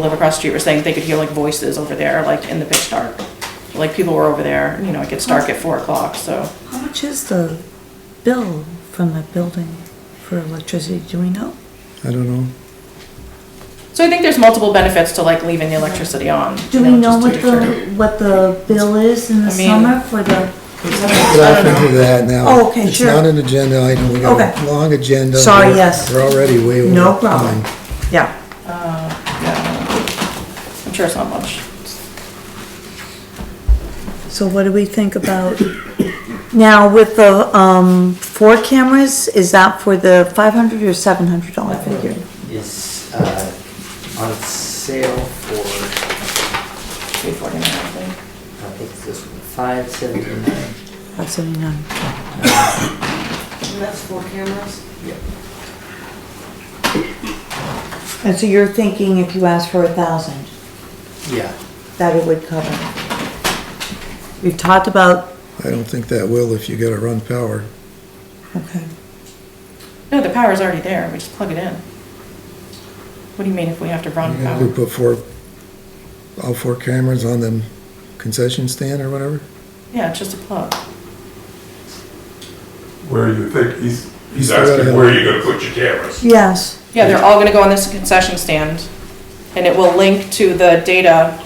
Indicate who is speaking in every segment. Speaker 1: live across the street were saying they could hear like voices over there, like in the pitch dark. Like people were over there, you know, it gets dark at four o'clock, so.
Speaker 2: How much is the bill from the building for electricity, do we know?
Speaker 3: I don't know.
Speaker 1: So I think there's multiple benefits to like leaving the electricity on.
Speaker 2: Do
Speaker 1: you
Speaker 2: we know
Speaker 1: just
Speaker 2: what
Speaker 1: to your circuit.
Speaker 2: the, what the bill is in the
Speaker 1: I mean-
Speaker 2: summer for the?
Speaker 3: We're off into that now.
Speaker 2: Oh, okay, sure.
Speaker 3: It's not an agenda item, we got a
Speaker 2: Okay.
Speaker 3: long agenda.
Speaker 2: Sorry,
Speaker 3: We're-
Speaker 2: yes.
Speaker 3: We're already way over.
Speaker 2: No problem.
Speaker 3: time.
Speaker 2: Yeah,
Speaker 1: I'm sure it's not much.
Speaker 2: so what do we think about? Now with the, um, four cameras, is that for the five hundred or seven hundred dollar figure?
Speaker 4: is uh, on sale for,
Speaker 1: Three forty-nine, I think.
Speaker 4: I think it's this one, five seventy-nine.
Speaker 2: Five seventy-nine.
Speaker 5: And that's four cameras?
Speaker 2: And so you're thinking if you ask for a thousand?
Speaker 4: Yeah,
Speaker 2: that it would cover. We've talked about,
Speaker 3: I don't think that will if you gotta run power.
Speaker 2: okay,
Speaker 1: No, the power's already there, we just plug it in. What do you mean if we have to run
Speaker 3: We
Speaker 1: power?
Speaker 3: put four, all four cameras on them concession stand or whatever?
Speaker 1: Yeah, it's just a plug.
Speaker 6: Where you think, he's,
Speaker 3: He's
Speaker 6: he's
Speaker 3: got a-
Speaker 6: asking where you're gonna put your cameras.
Speaker 2: yes,
Speaker 1: Yeah, they're all gonna go on this concession stand, and it will link to the data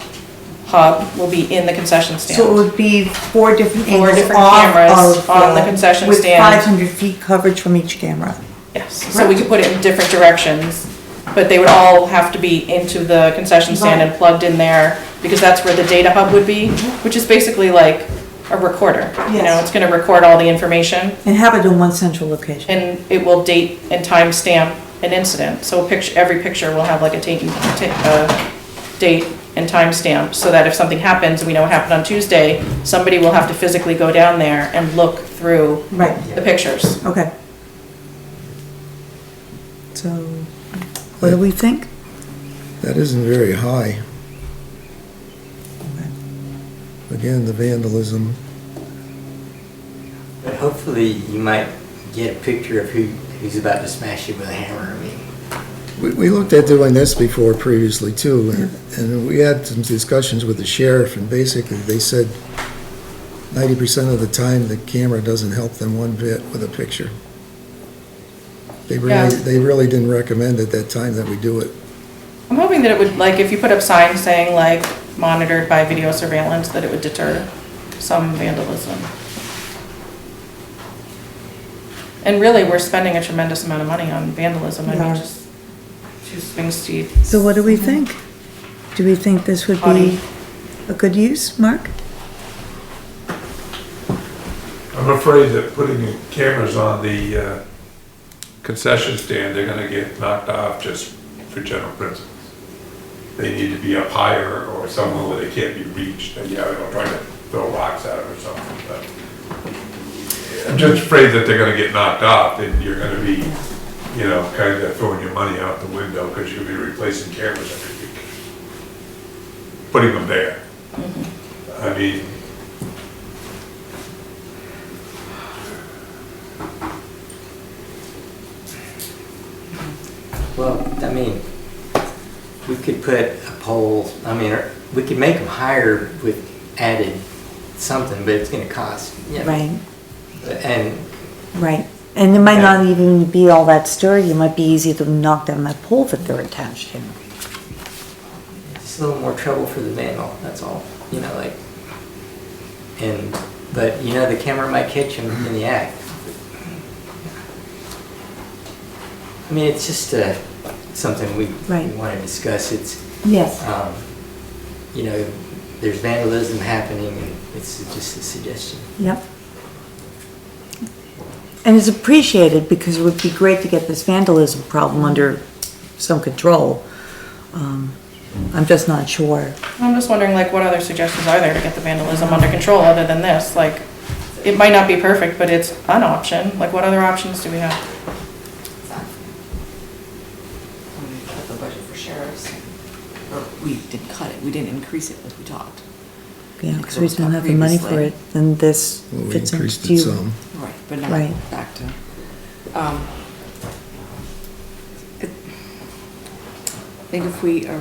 Speaker 1: hub, will be in the concession stand.
Speaker 2: so it would be four different
Speaker 1: Four
Speaker 2: angles
Speaker 1: different
Speaker 2: off
Speaker 1: cameras
Speaker 2: of
Speaker 1: on the concession stand.
Speaker 2: With five hundred feet coverage from each camera.
Speaker 1: Yes, so we could put it in different directions, but they would all have to be into the concession stand and plugged in there, because that's where the data hub would be, which is basically like a recorder. You know,
Speaker 2: Yes.
Speaker 1: it's gonna record all the information,
Speaker 2: And have it in one central location.
Speaker 1: and it will date and timestamp an incident. So a picture, every picture will have like a date, and- ta- uh, date and timestamp, so that if something happens, and we know it happened on Tuesday, somebody will have to physically go down there and look through
Speaker 2: Right,
Speaker 1: the pictures.
Speaker 2: okay. So, what do we think?
Speaker 3: That isn't very high. Again, the vandalism,
Speaker 4: but hopefully you might get a picture of who, who's about to smash you with a hammer, I mean.
Speaker 3: We, we looked at doing this before previously too, and- and we had some discussions with the sheriff, and basically they said ninety percent of the time, the camera doesn't help them one bit with a picture. They
Speaker 1: Yeah.
Speaker 3: really, they really didn't recommend at that time that we do it.
Speaker 1: I'm hoping that it would, like, if you put up signs saying, like, monitored by video surveillance, that it would deter some vandalism. And really, we're spending a tremendous amount of money on vandalism, I
Speaker 2: We are.
Speaker 1: mean, just, just things to.
Speaker 2: So what do we
Speaker 1: Mm-hmm.
Speaker 2: think? Do we think this would be
Speaker 1: Audie.
Speaker 2: a good use, Mark?
Speaker 6: I'm afraid that putting cameras on the uh, concession stand, they're gonna get knocked off just for general principles. They need to be up higher or somewhere where they can't be reached, and yeah, they'll try to throw rocks at them or something, but I'm just afraid that they're gonna get knocked off, and you're gonna be, you know, kinda throwing your money out the window, because you'll be replacing cameras every week. Putting them there. I mean,
Speaker 4: Well, I mean, we could put a pole, I mean, or we could make them higher with added something, but it's gonna cost. yeah.
Speaker 2: Right.
Speaker 4: And,
Speaker 2: Right, and it might not even be all that sturdy, it might be easy to knock down that pole that they're attached to.
Speaker 4: It's a little more trouble for the vandal, that's all, you know, like, and, but, you know, the camera might catch him in the act. I mean, it's just, uh, something we, we
Speaker 2: Right.
Speaker 4: wanna discuss, it's,
Speaker 2: Yes.
Speaker 4: um, you know, there's vandalism happening, and it's just a suggestion.
Speaker 2: Yep. And it's appreciated because it would be great to get this vandalism problem under some control. Um, I'm just not sure.
Speaker 1: I'm just wondering, like, what other suggestions are there to get the vandalism under control, other than this, like, it might not be perfect, but it's an option, like, what other options do we have?
Speaker 5: When we cut the budget for sheriffs, or we didn't cut it, we didn't increase it as we talked.
Speaker 2: Yeah, because we don't have the money for it, then this
Speaker 3: Well, We
Speaker 2: fits
Speaker 3: increased
Speaker 2: into
Speaker 3: it some.
Speaker 2: you.
Speaker 5: Right, but now
Speaker 2: Right.
Speaker 5: back to, um, it- I think if we are